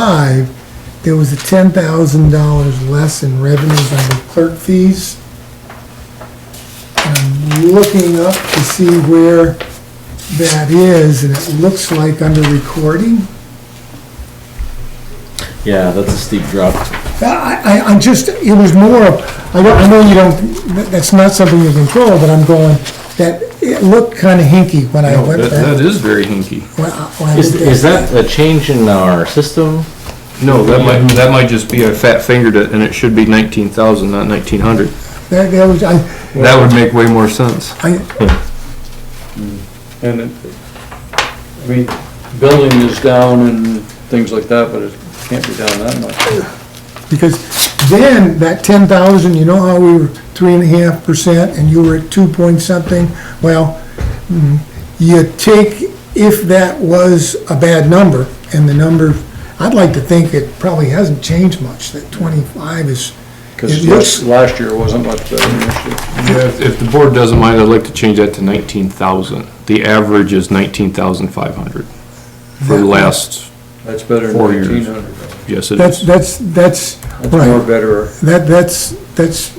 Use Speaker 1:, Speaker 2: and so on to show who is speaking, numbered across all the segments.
Speaker 1: five, there was a ten thousand dollars less in revenues under clerk fees. I'm looking up to see where that is, and it looks like under recording.
Speaker 2: Yeah, that's a steep drop.
Speaker 1: I, I, I'm just, it was more, of- I don't, I know you don't, that- that's not something you control, but I'm going, that, it looked kinda hinky when I
Speaker 3: No,
Speaker 1: went
Speaker 3: that,
Speaker 1: back.
Speaker 3: that is very hinky.
Speaker 1: when I- when I
Speaker 2: Is,
Speaker 1: looked
Speaker 2: is
Speaker 1: at
Speaker 2: that a change in our system?
Speaker 3: No, that might, that might just be I fat fingered it and it should be nineteen thousand, not nineteen hundred.
Speaker 1: That, that was, I,
Speaker 3: That would make way more sense.
Speaker 1: I,
Speaker 4: And, it- I mean, building is down and things like that, but it can't be down that much.
Speaker 1: because then, that ten thousand, you know how we were three and a half percent and you were at two point something? Well, mm, you take, if that was a bad number, and the number, I'd like to think it probably hasn't changed much, that twenty-five is, It looks-
Speaker 4: Because last year wasn't much better than this year.
Speaker 3: If, if the board doesn't mind, I'd like to change that to nineteen thousand. The average is nineteen thousand five hundred for the last,
Speaker 4: That's better
Speaker 3: Four
Speaker 4: than
Speaker 3: years.
Speaker 4: eighteen hundred.
Speaker 3: yes, it
Speaker 1: that's,
Speaker 3: is.
Speaker 1: that's, that's,
Speaker 4: That's
Speaker 1: Right.
Speaker 4: more better.
Speaker 1: That, that's, that's,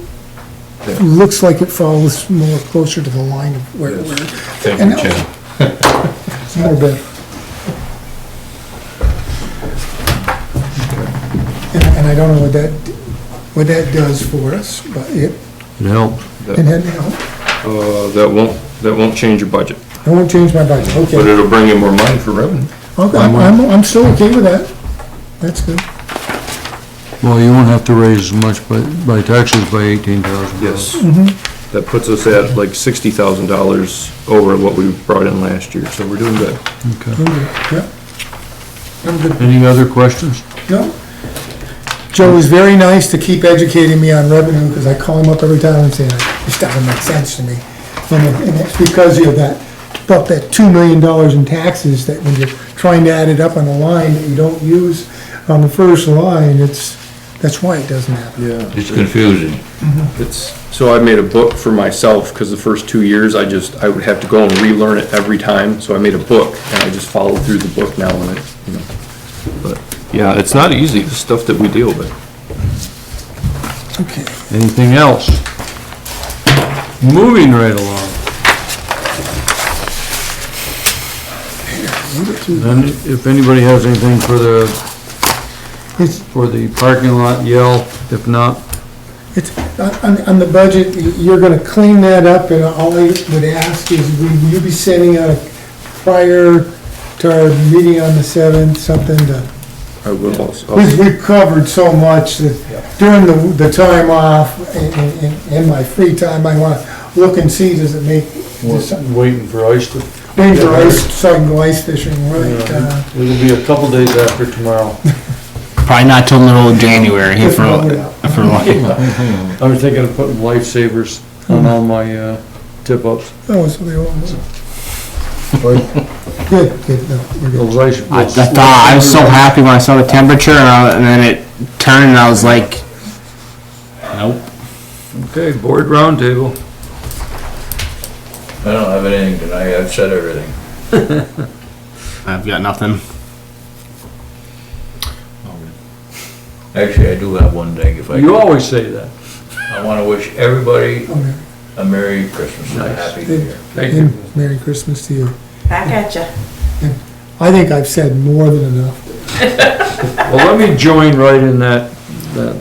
Speaker 3: Yeah.
Speaker 1: looks like it falls more closer to the line of where, where it's
Speaker 3: Thank you, Chad.
Speaker 1: more better. And, and I don't know what that, what that does for us, but it,
Speaker 3: No.
Speaker 1: it
Speaker 3: That,
Speaker 1: had, no,
Speaker 3: uh, that won't, that won't change your budget,
Speaker 1: it won't change my budget,
Speaker 3: but
Speaker 1: okay.
Speaker 3: it'll bring in more money for revenue.
Speaker 1: Okay, I'm, I'm- I'm still okay with that. That's good.
Speaker 5: Well, you won't have to raise as much by, by taxes by eighteen thousand.
Speaker 3: Yes. That puts us at like sixty thousand dollars over what we brought in last year, so we're doing good.
Speaker 1: I'm good, Yep. I'm good.
Speaker 5: Any other questions?
Speaker 1: No. Joe was very nice to keep educating me on revenue, because I call him up every time and say, this doesn't make sense to me. And it- and it's because of that, about that two million dollars in taxes, that when you're trying to add it up on a line that you don't use on the first line, it's, that's why it doesn't happen.
Speaker 3: Yeah.
Speaker 6: It's confusing.
Speaker 3: It's, so I made a book for myself, because the first two years, I just, I would have to go and relearn it every time, so I made a book, and I just followed through the book now, and it, you know. But, yeah, it's not easy, the stuff that we deal with.
Speaker 1: Okay.
Speaker 5: Anything else? Moving right along. Then, if anybody has anything for the,
Speaker 1: It's,
Speaker 5: for the parking lot, yell. If not,
Speaker 1: It's, on- on, on the budget, you're gonna clean that up, and all I would ask is, will you be sending out prior to our meeting on the seventh, something to,
Speaker 3: I will also.
Speaker 1: we've, we've covered so much that during the, the time off, and, and- and, and my free time, I wanna look and see, does it make, does something,
Speaker 5: waiting for ice to.
Speaker 1: maybe for ice, so I can go ice fishing, right? uh,
Speaker 5: It'll be a couple days after tomorrow.
Speaker 6: Probably not till middle of January here for, for like,
Speaker 4: I was thinking of putting lifesavers on all my, uh, tip-ups.
Speaker 1: Oh, so they all. Good, good, no, we're good.
Speaker 4: Those ice.
Speaker 6: I thought, I was so happy when I saw the temperature and I- and then it turned and I was like, nope.
Speaker 5: Okay, board roundtable.
Speaker 7: I don't have anything tonight, I've said everything.
Speaker 6: I've got nothing.
Speaker 7: Actually, I do have one thing, if I
Speaker 4: You
Speaker 7: could.
Speaker 4: always say that.
Speaker 7: I wanna wish everybody
Speaker 1: Oh, Merry-
Speaker 7: a Merry Christmas and a Happy New Year.
Speaker 4: Thank you.
Speaker 1: Merry Christmas to you.
Speaker 8: Back at ya.
Speaker 1: I think I've said more than enough.
Speaker 4: Well, let me join right in that, that,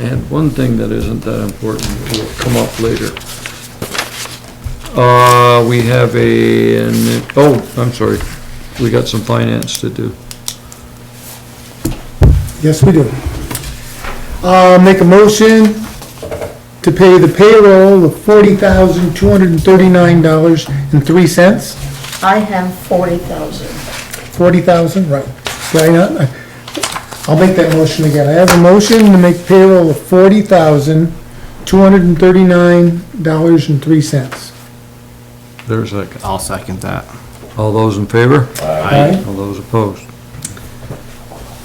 Speaker 4: and one thing that isn't that important will come up later. Uh, we have a, an- oh, I'm sorry, we got some finance to do.
Speaker 1: Yes, we do. Uh, make a motion to pay the payroll of forty thousand, two hundred and thirty-nine dollars and three cents.
Speaker 8: I have forty thousand.
Speaker 1: Forty thousand, right. Right, uh, I'll make that motion again. I have a motion to make payroll of forty thousand, two hundred and thirty-nine dollars and three cents.
Speaker 5: There's a second.
Speaker 6: I'll second that.
Speaker 5: All those in favor?
Speaker 1: Aye.
Speaker 5: All those opposed?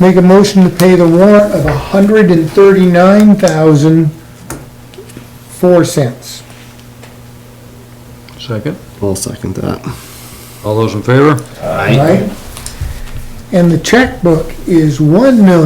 Speaker 1: Make a motion to pay the warrant of a hundred and thirty-nine thousand, four cents.
Speaker 5: Second.
Speaker 6: I'll second that.
Speaker 5: All those in favor?
Speaker 1: Right? And the checkbook is one million.